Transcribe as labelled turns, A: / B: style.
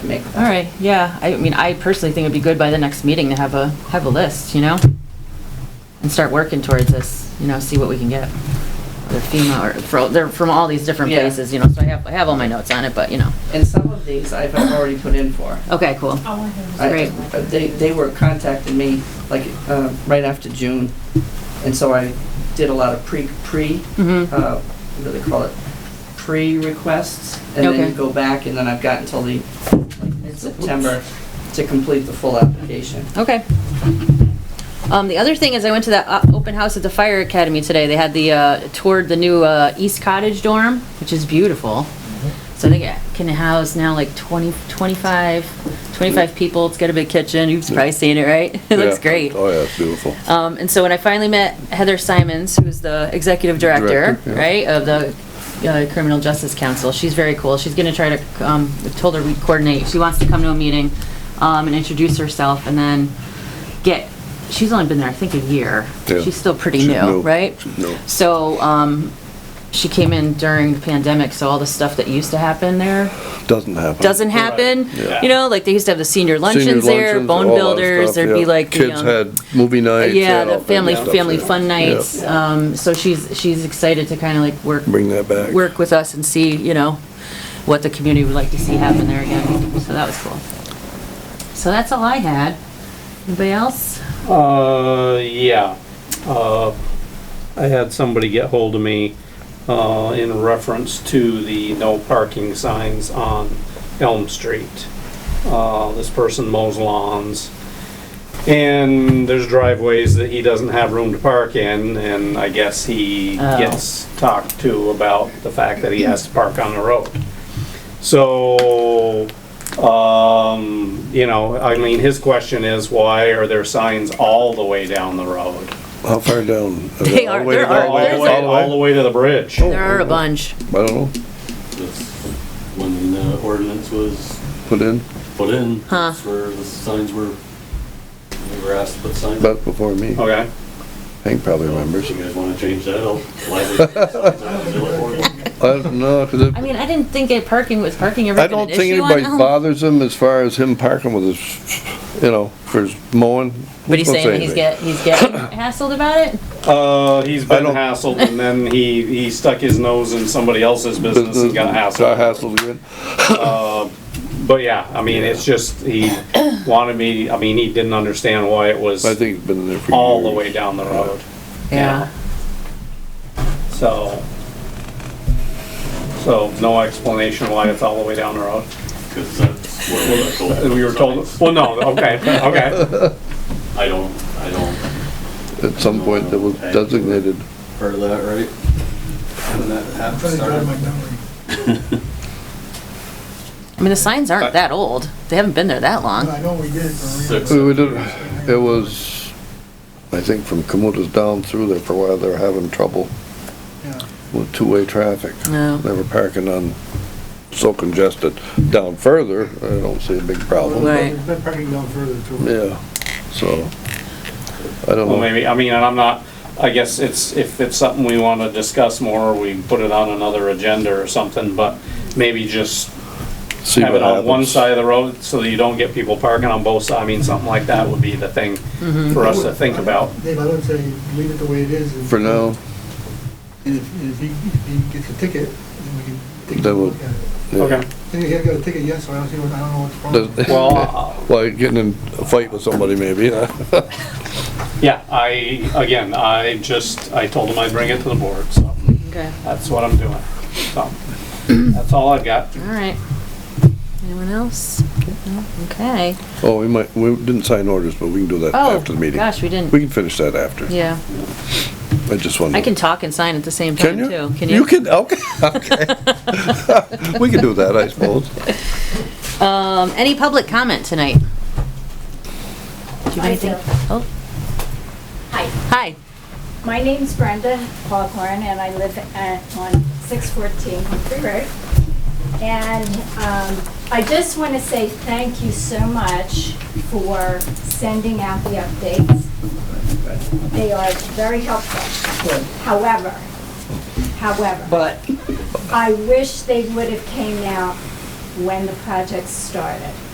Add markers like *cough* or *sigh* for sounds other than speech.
A: make.
B: All right, yeah, I mean, I personally think it'd be good by the next meeting to have a, have a list, you know? And start working towards this, you know, see what we can get. The FEMA, or, fro- they're from all these different
A: Yeah.
B: places, you know, so I have, I have all my notes on it, but, you know.
A: And some of these I've already put in for.
B: Okay, cool.
A: I- uh,
B: Great.
A: They, they were contacting me like, uh, right after June, and so I did a lot of pre, pre,
B: Mm-hmm,
A: uh, what do they call it? Pre-requests, and then
B: Okay.
A: you go back, and then I've got until the, like, September to complete the full application.
B: okay. Um, the other thing is I went to that uh, open house at the fire academy today. They had the, uh, toured the new, uh, East Cottage dorm, which is beautiful. So they get- can house now like 20, 25, 25 people. It's got a big kitchen. You've probably seen it, right? *laughs* It looks
C: Yeah.
B: great.
C: Oh, yeah, it's beautiful.
B: Um, and so when I finally met Heather Simons, who's the executive director,
C: Director, yeah.
B: right, of the uh, Criminal Justice Council, she's very cool. She's gonna try to, um, I told her we'd coordinate. She wants to come to a meeting, um, and introduce herself and then get, she's only been there, I think, a year.
C: Yeah.
B: She's still pretty
C: She's
B: new,
C: new.
B: right?
C: She's new.
B: So, um, she came in during the pandemic, so all the stuff that used to happen there
C: Doesn't happen.
B: doesn't happen.
C: Yeah.
B: You know, like they used to have the senior luncheons
C: Senior
B: there,
C: luncheons,
B: bone
C: all that
B: builders.
C: stuff,
B: There'd
C: yeah.
B: be like the,
C: Kids
B: um,
C: had movie nights. they
B: yeah,
C: had all
B: the
C: kinds of
B: family
C: stuff,
B: family
C: yeah.
B: fun
C: Yeah.
B: nights. Um, so she's she's excited to kind of like work
C: Bring that back.
B: work with us and see you know what the community would like to see happen there again. So that was cool. So that's all I had. Anybody else?
D: Uh, yeah. Uh, I had somebody get hold of me, uh, in reference to the no parking signs on Elm Street. Uh, this person mows lawns. And there's driveways that he doesn't have room to park in, and I guess he
B: Oh.
D: gets talked to about the fact that he has to park on the road. So, um, you know, I mean, his question is, why are there signs all the way down the road?
C: How far down?
B: *laughs* They
C: All the
B: are-
C: way
B: there
C: down,
B: are-
D: All the
B: there's
D: way,
B: a-
D: all the way to the bridge.
B: There are a bunch.
C: I don't know,
E: That's when the ordinance was
C: put in,
E: put in.
B: Huh.
E: that's where the signs were, we were asked to put signs.
C: but before me.
D: Okay,
C: Hank probably
E: If
C: remembers.
E: you guys wanna change that, Oh, I'll gladly. put signs out on the ordinance.
C: I don't know, 'cause
B: *laughs*
C: it-
B: I mean, I didn't think it parking was parking ever
C: I
B: been an
C: don't think
B: issue um, on
C: anybody
B: Elm.
C: bothers him as far as him parking with his, you know, for his mowing.
B: But he's
C: Don't say
B: saying he's
C: anything.
B: get he's
C: *coughs*
B: getting hassled about it.
D: uh, he's
C: I
D: been
C: don't-
D: hassled and then he, he stuck his nose in somebody else's business and got
C: Got
D: hassled.
C: hassled again.
D: But yeah, I mean, it's just, he *coughs* wanted me, I mean, he didn't understand why it was
C: I think he's been there for years.
D: all the way down the road.
B: Yeah.
D: So, so no explanation why it's all the way down the road.
E: 'Cause that's where we
D: *laughs*
E: were told. to
D: We were
E: put
D: told,
E: signs.
D: well, no, okay, okay.
E: I don't, I don't,
C: At some point that was designated.
E: heard that right? When that happened, started.
B: I mean, the signs aren't that old. They haven't been there that long.
F: I know we did. for
E: Six.
F: real.
C: We did, it was, I think from Kamuta's down through there for a while, they were having trouble
F: Yeah.
C: with two-way traffic.
B: No.
C: They were parking on, so congested. Down further, I don't see a big problem.
B: Right.
F: We've been parking down further too.
C: Yeah, so, I don't
D: Well,
C: know.
D: maybe, I mean, and I'm not, I guess it's, if it's something we want to discuss more, we put it on another agenda or something, but maybe just
C: See
D: have
C: what
D: it on one
C: happens.
D: side of the road so that you don't get people parking on both sides. I mean, something like that would be the thing for us to think about.
F: Dave, I would say leave it the way it is. and-
C: For now,
F: And if, and if he, if he gets a ticket, then we can take a
C: That
F: look
C: would-
F: at it.
C: yeah.
D: Okay,
F: And he has got a ticket, yes, so I don't see what, I don't know what's wrong.
C: Does-
D: well, uh,
C: Like getting in a fight with somebody maybe, yeah.
D: yeah, I, again, I just, I told him I'd bring it to the board, so
B: Okay.
D: that's what I'm doing. So, that's all I've got.
B: All right. Anyone else? No? Okay.
C: *laughs* Oh, we might, we didn't sign orders, but we can do that
B: Oh,
C: after the meeting.
B: gosh, we didn't.
C: We can finish that after.
B: Yeah,
C: I just wanted.
B: I can talk and sign at the same time
C: Can you?
B: too.
C: You can, okay,
B: *laughs*
C: okay. *laughs* We can do that, I suppose.
B: Um, any public comment tonight? Do you have
G: I
B: anything?
G: do.
B: Oh,
G: Hi,
B: hi.
G: my name's Brenda Foghorn, and I live at, on 614 Humphrey Road. And um, I just want to say thank you so much for sending out the updates. They are very helpful. However, however,
A: But
G: I wish they would have came out when the project started.